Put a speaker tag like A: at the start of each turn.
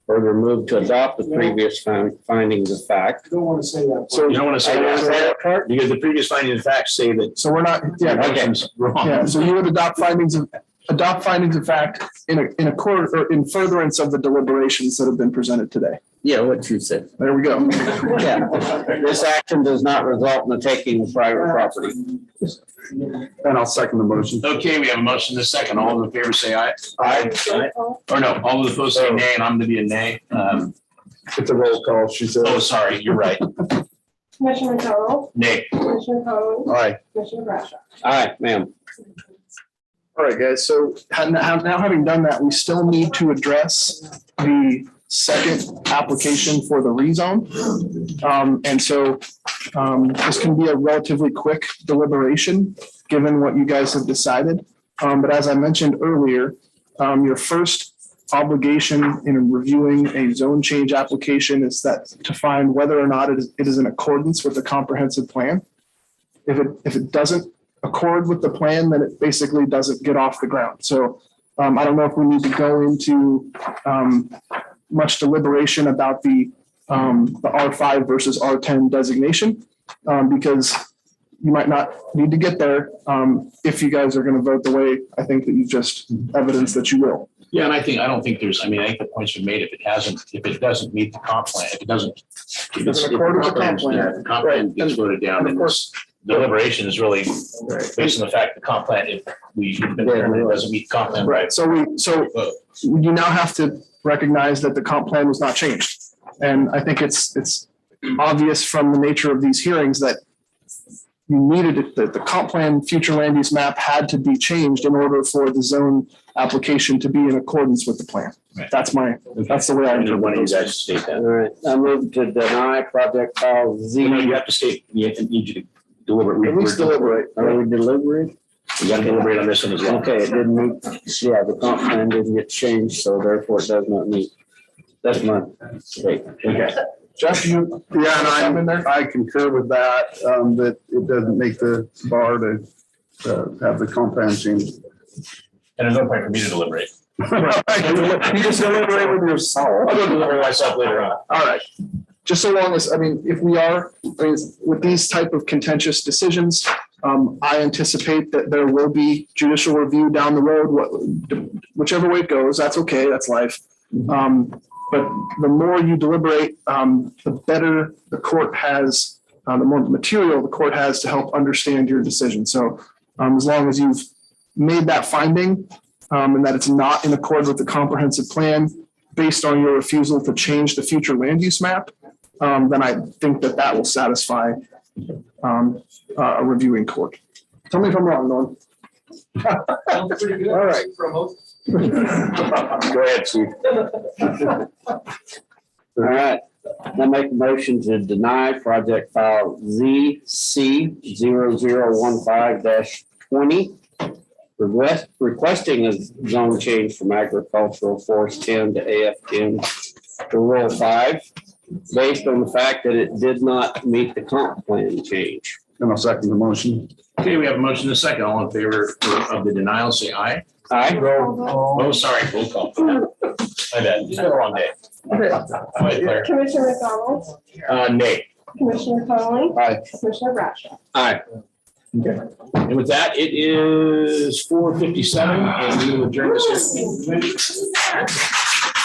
A: Further move to adopt the previous fin- findings of fact.
B: don't want to say that.
C: So you don't want to say that,
A: part?
C: because the previous finding of fact say that.
B: So we're not, yeah,
C: something's
B: yeah,
C: Wrong.
B: so you would adopt findings of, adopt findings of fact in a, in a court or in furtherance of the deliberations that have been presented today.
A: Yeah, what you said.
B: There we go.
A: Yeah. This action does not result in the taking of private property.
B: And I'll second the motion.
C: Okay, we have a motion to second. All those in favor say aye. Aye. Or no, all those opposed say nay, and I'm gonna be a nay. Um,
B: It's a roll call, she said.
C: oh, sorry, you're right.
D: Commissioner McDonald,
C: Nay.
D: Commissioner Connolly,
C: Aye.
D: Commissioner Bradshaw.
A: Aye, ma'am.
B: All right, guys, so ha- now now having done that, we still need to address the second application for the rezone. Um, and so, um, this can be a relatively quick deliberation, given what you guys have decided. Um, but as I mentioned earlier, um, your first obligation in reviewing a zone change application is that to find whether or not it is, it is in accordance with the comprehensive plan. If it, if it doesn't accord with the plan, then it basically doesn't get off the ground. So um, I don't know if we need to go into um, much deliberation about the um, the R5 versus R10 designation um, because you might not need to get there um, if you guys are going to vote the way I think that you've just evidenced that you will.
C: Yeah, and I think, I don't think there's, I mean, I think the points you made, if it hasn't, if it doesn't meet the comp plan, if it doesn't. if it's- if the
B: According to comp
C: plan is
B: plan.
C: there, the Comp plan gets voted down and this deliberation is really based on the fact the comp plan, if we, if it doesn't meet comp plan.
B: So we so
C: Vote.
B: you now have to recognize that the comp plan was not changed. And I think it's, it's obvious from the nature of these hearings that you needed, it- that the comp plan, future land use map had to be changed in order for the zone application to be in accordance with the plan.
C: Right.
B: That's my, that's the way I
C: I don't
B: interpret
C: want you
B: it.
C: guys to state
A: All
C: that.
A: right, I move to deny project file
C: You know, you
A: Z.
C: have to state, you have to- need you to deliberate.
A: At least
C: deliberate.
A: Are we delivering?
C: You gotta deliberate on this one as well.
A: Okay, it didn't meet, yeah, the comp plan didn't get changed, so therefore it does not meet. That's my statement.
C: Okay.
E: Jeff, you, yeah, and I'm in there. I concur with that, um, that it doesn't make the bar to, uh, have the compound change.
C: And there's no point for me to deliberate.
B: You just deliberate with yourself.
C: I'll go deliberate myself later on.
B: All right. Just so long as, I mean, if we are, I mean, with these type of contentious decisions, um, I anticipate that there will be judicial review down the road, what, whichever way it goes, that's okay, that's life. Um, but the more you deliberate, um, the better the court has, uh, the more material the court has to help understand your decision. So, um, as long as you've made that finding, um, and that it's not in accord with the comprehensive plan, based on your refusal to change the future land use map, um, then I think that that will satisfy um, uh, a reviewing court. Tell me if I'm wrong, Norm.
E: All right.
C: Go ahead, Steve.
A: All right, I make a motion to deny project file ZC 15 twenty. Request, requesting a zone change from agricultural forest ten to AF ten to rural five. Based on the fact that it did not meet the comp plan change.
E: And I'll second the motion.
C: Okay, we have a motion and a second. All in favor of the denial, say aye.
A: Aye.
C: Oh, sorry, roll call. I bet. It's been a long day. Wait, Claire.
D: Commissioner McDonald,
C: Uh, nay.
D: Commissioner Connolly,
A: Aye.
D: Commissioner Bradshaw.
A: Aye.
C: And with that, it is four fifty-seven and we will adjourn this.